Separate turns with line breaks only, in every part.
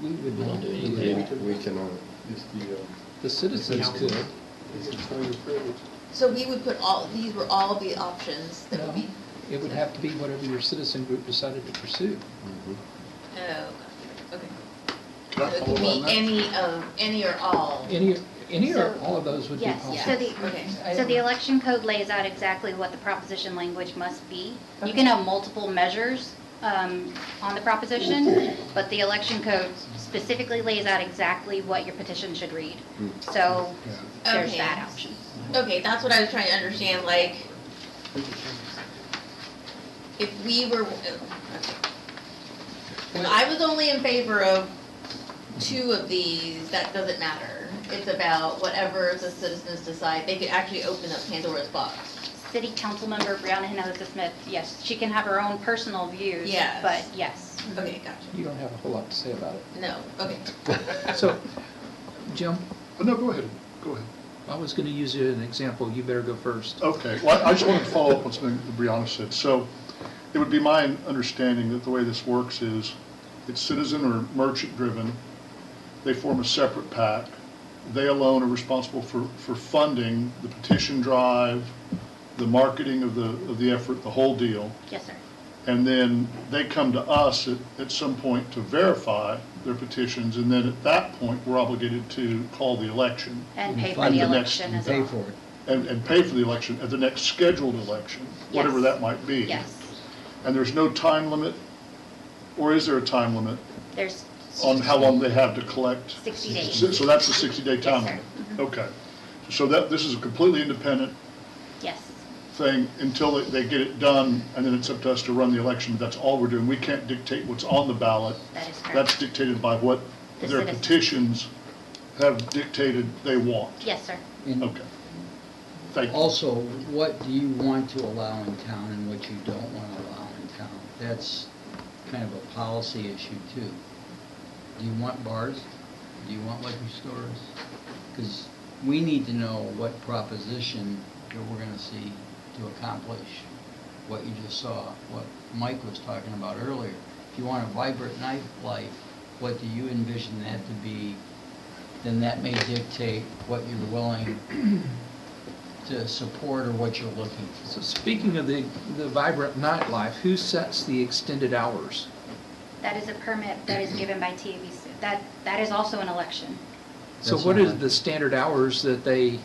could
We don't
not.
do
do
anything.
that.
We cannot.
It's the, um,
The citizens could.
it's the sign of privilege.
So we would put all, these were all the options that would
No,
be,
It would have to be whatever your citizen group decided to pursue.
Mhm.
oh, okay.
Can
So
I
it
follow
could
on
be
that?
any of, any or all.
Any, any or
So-
all of those would be
Yes,
possible.
so
Okay.
the, so the election code lays out exactly what the proposition language must be. You can have multiple measures um, on the proposition, but the election code specifically lays out exactly what your petition should read.
Mm.
So there's
Okay.
that option.
Okay, that's what I was trying to understand, like, if we were, oh, okay. If I was only in favor of two of these, that doesn't matter. It's about whatever the citizens decide, they could actually open up Pandora's box.
City council member Brianna Hinojosa Smith, yes, she can have her own personal views,
Yes.
but yes.
Okay, gotcha.
You don't have a whole lot to say about it.
No, okay.
So, Jim,
Oh, No, go ahead, go ahead.
I was gonna use you as an example. You better go first.
Okay, well, I just wanted to follow up on something that Brianna said. So it would be my understanding that the way this works is it's citizen or merchant-driven. They form a separate pack. They alone are responsible for, for funding the petition drive, the marketing of the, of the effort, the whole deal.
Yes, sir.
And then they come to us at, at some point to verify their petitions, and then at that point, we're obligated to call the election
And
And
pay for
fund
the
the next-
election as well.
Pay for it.
and, and pay for the election at the next scheduled election, whatever
Yes.
that might be.
Yes,
And there's no time limit, or is there a time limit
there's
on how long they have to collect?
60 days.
So so that's the 60-day time
Yes, sir. Mm-hmm.
limit? Okay. So that, this is a completely independent
Yes,
thing until they- they get it done, and then it's up to us to run the election. That's all we're doing. We can't dictate what's on the ballot.
that
That's
is correct.
dictated by what
The
their
citizens.
petitions have dictated they want.
Yes, sir.
And
Okay. Thank you.
also, what do you want to allow in town and what you don't want to allow in town? That's kind of a policy issue too. Do you want bars? Do you want liquor stores? Because we need to know what proposition that we're going to see to accomplish what you just saw, what Mike was talking about earlier. If you want a vibrant nightlife, what do you envision that to be? Then that may dictate what you're willing to support or what you're looking
So
for.
speaking of the, the vibrant nightlife, who sets the extended hours?
That is a permit that is given by TABC. That, that is also an election
So
That's
what
not
is
it.
the standard hours that they?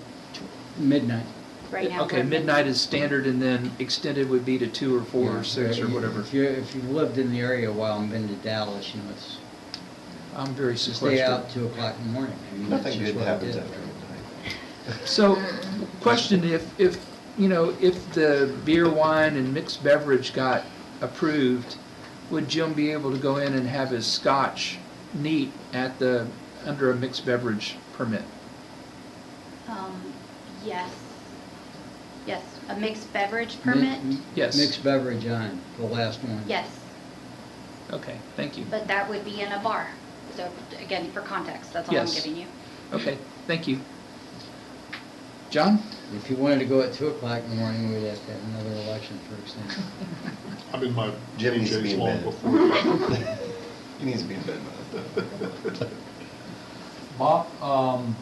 Midnight.
right now.
Okay,
we're-
midnight is standard and then extended would be to two or four
Yeah,
or six or
if-
whatever.
If you, if you've lived in the area a while and been to Dallas, you know, it's,
I'm very
to stay
sequestered.
out two o'clock in the morning. I mean, that's
Nothing
just
good
what I
happens
did.
after midnight.
So, question, if, if, you know, if the beer, wine and mixed beverage got approved, would Jim be able to go in and have his scotch neat at the, under a mixed beverage permit?
Um, yes. Yes, a mixed beverage
Mi-
permit?
Yes.
Mixed beverage on, the last one.
Yes,
Okay, thank you.
but that would be in a bar. So again, for context, that's all I'm
Yes.
giving you.
Okay, thank you. John?
If you wanted to go at two o'clock in the morning, we'd have to have another election for extension.
I'm in my
Jim needs to be
PJs
in
long
bed.
before.
He needs to be in bed by then.
Bob, um,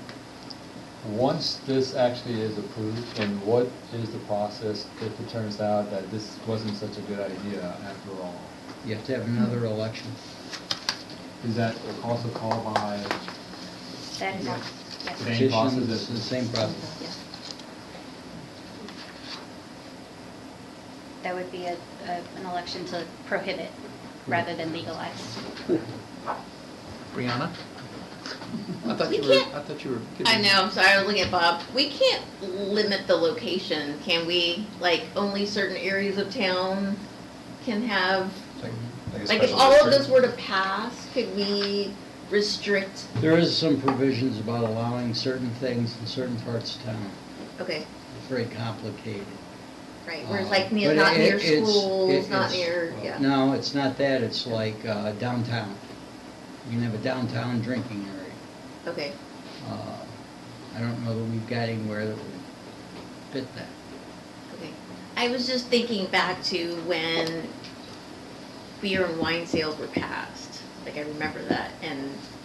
once this actually is approved, and what is the process if it turns out that this wasn't such a good idea after all?
You have to have another election.
Is that also called by,
That is, all. yes,
Thank- Same process
Petition,
as-
It's the same process.
yes. That would be a, a- an election to prohibit rather than legalize.
Brianna? I thought
We
you were,
can't-
I thought you were.
I know, I'm sorry, I was looking at Bob. We can't limit the location, can we? Like, only certain areas of town can have,
a
like, if
special
all of
district.
this were to pass, could we restrict?
There is some provisions about allowing certain things in certain parts of town.
Okay,
It's very complicated.
right, where it's
Uh,
like near,
but
not
it-
near
it's-
schools,
it-
not
it's-
near, yeah.
No, it's not that, it's like uh, downtown. You can have a downtown drinking area.
Okay,
Uh, I don't know that we've got anywhere that would fit that.
okay. I was just thinking back to when beer and wine sales were passed. Like, I remember that, and